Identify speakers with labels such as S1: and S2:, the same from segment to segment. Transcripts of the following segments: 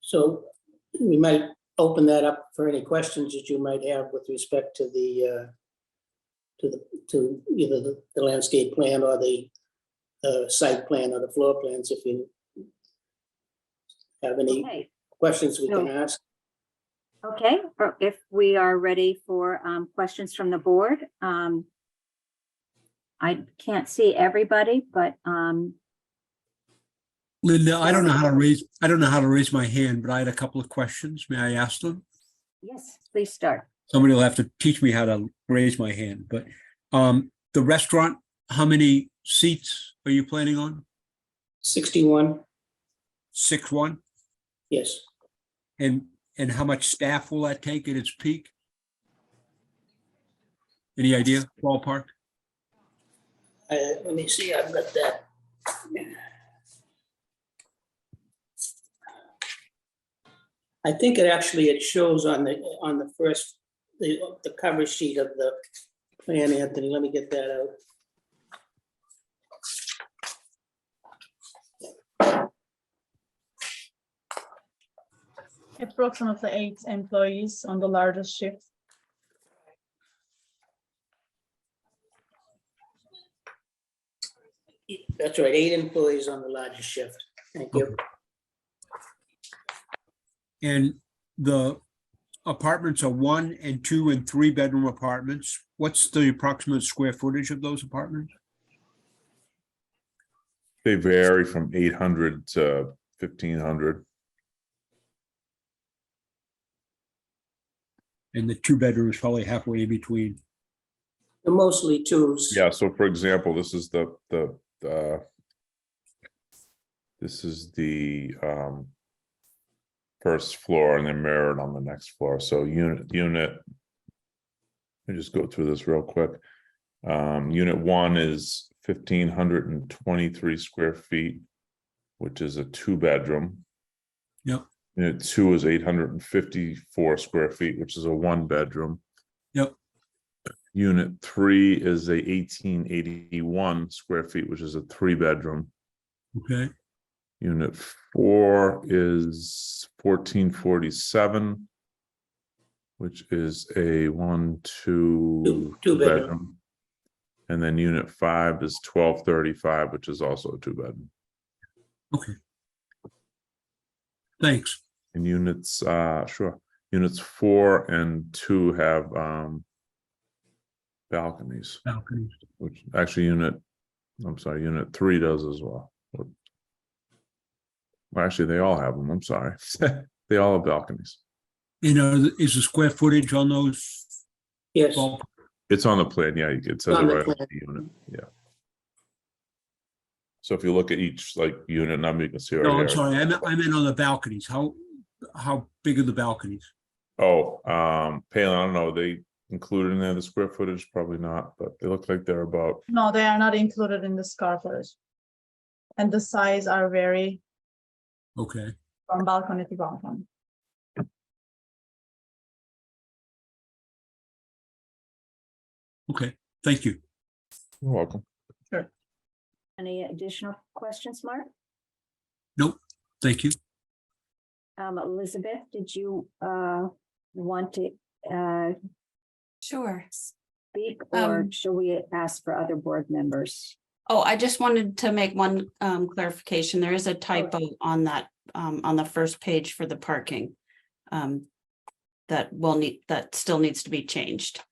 S1: So we might open that up for any questions that you might have with respect to the, uh, to the, to either the- the landscape plan or the uh, site plan or the floor plans, if you have any
S2: Okay,
S1: questions we can ask.
S2: okay, or if we are ready for um, questions from the board. um, I can't see everybody, but um,
S3: Linda, I don't know how to raise, I don't know how to raise my hand, but I had a couple of questions. May I ask them?
S2: yes, please start.
S3: Somebody will have to teach me how to raise my hand, but um, the restaurant, how many seats are you planning on?
S1: 61,
S3: Six, one?
S1: yes.
S3: And, and how much staff will that take at its peak? Any idea ballpark?
S1: Uh, Let me see, I've got that. I think it actually, it shows on the, on the first, the, the cover sheet of the plan, Anthony, let me get that out.
S4: Approximately eight employees on the largest shift.
S1: That's right, eight employees on the largest shift. Thank you.
S3: And the apartments are one and two and three bedroom apartments. What's the approximate square footage of those apartments?
S5: They vary from eight hundred to fifteen hundred.
S3: And the two bedrooms probably halfway in between.
S1: They're Mostly twos.
S5: Yeah, so for example, this is the, the, uh, this is the, um, first floor and then mirrored on the next floor. So unit, unit, let me just go through this real quick. Um, unit one is fifteen hundred and twenty-three square feet, which is a two-bedroom.
S3: Yep.
S5: Unit two is eight hundred and fifty-four square feet, which is a one-bedroom.
S3: Yep.
S5: Unit three is a eighteen eighty-one square feet, which is a three-bedroom.
S3: Okay,
S5: Unit four is fourteen forty-seven, which is a one, two.
S1: Two- two bedroom.
S5: And then unit five is twelve thirty-five, which is also a two-bedroom.
S3: thanks.
S5: And units, uh, sure, units four and two have, um, balconies.
S3: Balconies.
S5: Which actually unit, I'm sorry, unit three does as well. Or- Well, actually, they all have them. I'm sorry. They all have balconies.
S3: You know, is the square footage on those?
S1: Yes,
S3: ball-
S5: It's on the plan. Yeah, it says it
S1: On the
S5: right on
S1: plan.
S5: the unit. Yeah. So if you look at each like unit number, you can see. right
S3: No, I'm
S5: here.
S3: sorry, I meant, I meant on the balconies. How, how big are the balconies?
S5: Oh, um, Palin, I don't know. They included in there the square footage? Probably not, but they look like they're about,
S4: No, they are not included in the square footage. And the size are vary
S3: Okay,
S4: from balcony to balcony.
S3: okay, thank you.
S5: you're welcome.
S2: Any additional questions, Mark?
S3: Thank you.
S2: Um, Elizabeth, did you uh, want to uh,
S6: Sure.
S2: speak or
S6: Um,
S2: shall we ask for other board members?
S6: Oh, I just wanted to make one um clarification. There is a typo on that, um, on the first page for the parking. Um, that will need, that still needs to be changed.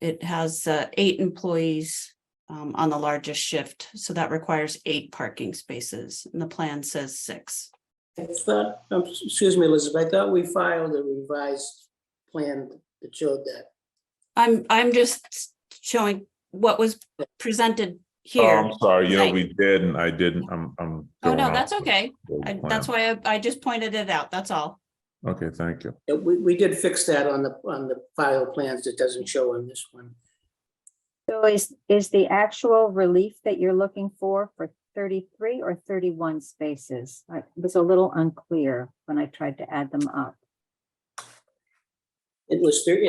S6: It has uh eight employees um on the largest shift, so that requires eight parking spaces, and the plan says six.
S1: I thought, um, excuse me, Elizabeth, I thought we filed a revised plan that showed that.
S6: I'm, I'm just showing what was presented
S5: Oh,
S6: here.
S5: I'm sorry. You know,
S6: Right.
S5: we did and I didn't. I'm, I'm.
S6: Oh,
S5: throwing
S6: no,
S5: out
S6: that's
S5: the
S6: okay.
S5: old
S6: I-
S5: plan.
S6: That's why I, I just pointed it out, that's all.
S5: Okay, thank you.
S1: Uh, We, we did fix that on the, on the file plans that doesn't show on this one.
S2: So is, is the actual relief that you're looking for for 33 or 31 spaces? I- It was a little unclear when I tried to add them up.
S1: It was, there.